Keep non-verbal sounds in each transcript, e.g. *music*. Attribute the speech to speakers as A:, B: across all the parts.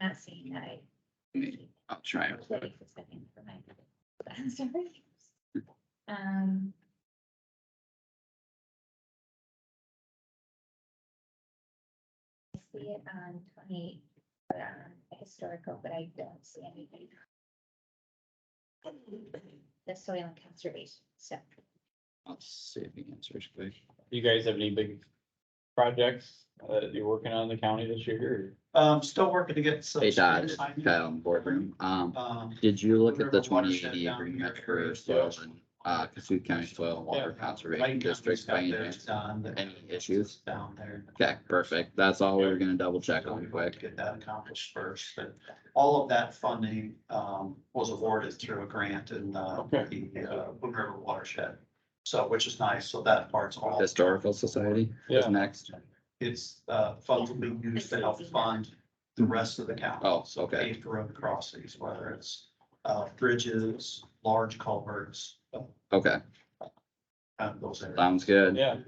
A: not seeing that. I-
B: Mm-hmm. I'll try.
A: I was ready for something for my- but I'm sorry. *laughs* Um. I see it on twenty, but on historical, but I don't see anything. The soil and conservation, so.
B: I'll see if he answers, please.
C: You guys have any big projects uh, that you're working on in the county this year?
D: Um, still working to get some.
B: Hey, Todd,
D: assignment.
B: Kyle in boardroom. Um,
D: Um,
B: did you look at the
D: River watershed
B: twenty eighty
D: down
B: agreement
D: here,
B: for
D: area
B: soils
D: soils.
B: and, uh, Cassuth County Soil and Water
D: yeah,
B: Conservation
D: lighting
B: District by
D: company's
B: any
D: got theirs
B: chance?
D: done, but
B: Any issues?
D: Down there.
B: Okay, perfect. That's all we were gonna double check on
D: To
B: quick.
D: Get that accomplished first, but all of that funding, um, was awarded through a grant in, uh,
C: Okay.
D: the, uh, Boone River watershed. So, which is nice, so that part's all.
B: Historical Society is
C: Yeah.
B: next.
D: It's, uh, funds will be used to help fund the rest of the county.
B: Oh,
D: So
B: okay.
D: paved road crossings, whether it's, uh, bridges, large culverts, uh,
B: Okay,
D: uh, those areas.
B: sounds good.
C: Yeah,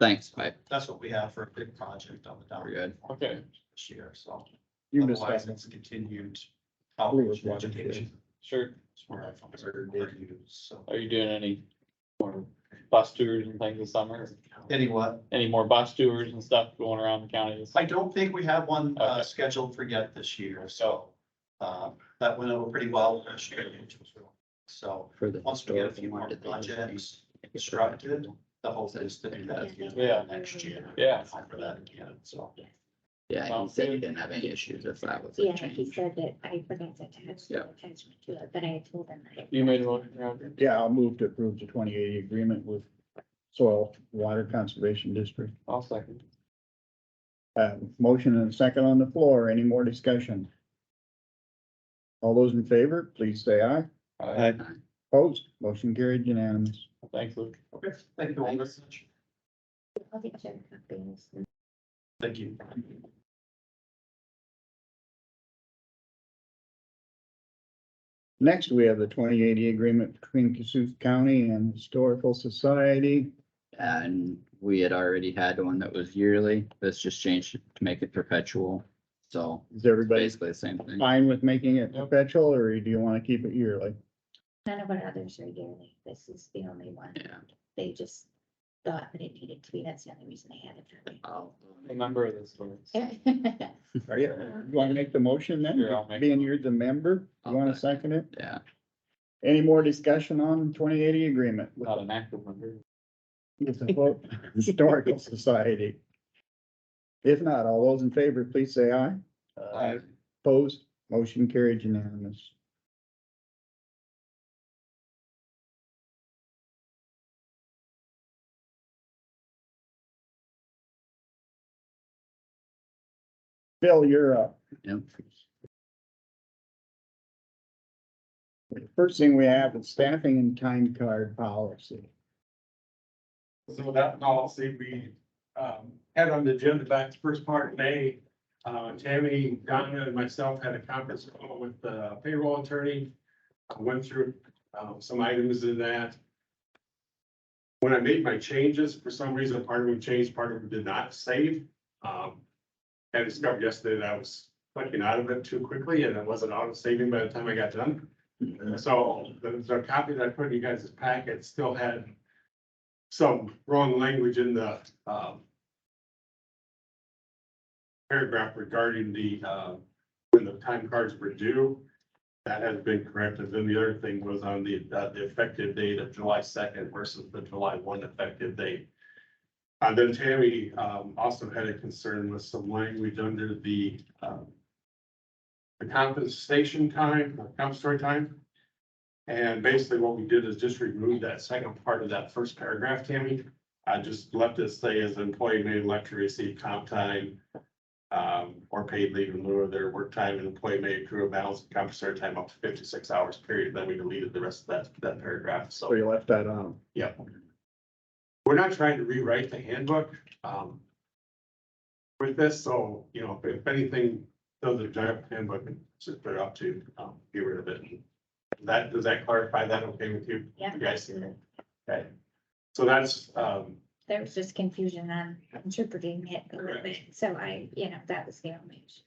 B: Thanks, bye.
D: That's what we have for a big project on the
B: We're
D: down
B: good.
C: okay.
D: this year, so.
E: You missed
D: Otherwise,
E: that.
D: it's a continued
E: believe
D: outreach
E: it's
D: and
E: watching
D: education.
C: Sure.
D: It's where I find certain reviews, so.
C: Are you doing any more bus tours and things this summer?
D: Anyway,
C: Any more bus tours and stuff going around the county? this-
D: I don't think we have one uh
C: Okay.
D: scheduled for yet this year, so. Um, that went over pretty well this year. So
B: For the
D: once we get a few
B: historical,
D: more
B: did they just
D: projects
B: make it so that-
D: constructed, the hope is to do that again
C: Yeah.
D: next year.
C: Yeah.
D: For that again, so.
B: Yeah, he
C: Sounds
B: said he
C: good.
B: didn't have any issues if that was a
A: Yeah, he
B: change.
A: said that I forgot to attach
B: Yeah.
A: the attachment to it, but I told him that.
C: You made one, Roger?
E: Yeah, I'll move to approve the twenty eighty agreement with Soil Water Conservation District.
C: I'll second.
E: Uh, motion and a second on the floor. Any more discussion? All those in favor, please say aye.
C: All right.
E: Aye. Opposed, motion carried unanimous.
C: Thanks, Luke.
D: Okay, thank you all very much.
A: I'll get you copies.
D: Thank you.
E: Next, we have the twenty eighty agreement between Cassuth County and Historical Society.
B: And we had already had one that was yearly. This just changed to make it perpetual. So
E: Is everybody
B: basically the same thing.
E: fine with making it
C: Yep.
E: perpetual or do you want to keep it yearly?
A: None of our others are yearly. This is the only one.
B: Yeah.
A: They just thought that it needed to be. That's the only reason they had it for me.
B: I'll
C: Remember this one.
A: *laughs* Yeah.
E: Are you, you want to make the motion then?
C: Sure, I'll make
E: Being you're the member, you want to second it?
B: Yeah,
E: Any more discussion on twenty eighty agreement with
C: Not an active member.
E: with the Folk Historical Society? If not, all those in favor, please say aye.
D: Uh,
E: Opposed, motion carried unanimous. Bill, you're up.
B: yep.
E: First thing we have is staffing and time card policy.
F: So that policy we um had on the agenda back the first part of May. Uh, Tammy, Donna and myself had a conference call with the payroll attorney. I Went through um some items in that. When I made my changes, for some reason, part of them changed, part of them did not save. Um, I discovered yesterday that I was clicking out of it too quickly and it wasn't auto saving by the time I got done. So the the copy that I put in you guys' packet still had some wrong language in the, um, paragraph regarding the, uh, when the time cards were due. That has been corrected. Then the other thing was on the, uh, the effective date of July second versus the July one effective date. Uh, then Tammy, um, also had a concern with some language under the, um, the compensation time, or compensatory time. And basically what we did is just remove that second part of that first paragraph, Tammy. I just left it say as employee may elect to receive comp time. Um, or paid leave in lieu of their work time and employee may accrue a balance of compensatory time up to fifty-six hours period. Then we deleted the rest of that, that paragraph,
E: So Oh, you left that on.
F: yeah. We're not trying to rewrite the handbook, um. With this, so, you know, if anything, those are giant handbook, just put it up to, um, get rid of it. That, does that clarify that okay with you?
A: Yeah.
F: You guys, okay, so that's, um,
A: There was just confusion on interpreting it a little bit. So I, you know, that was the only issue.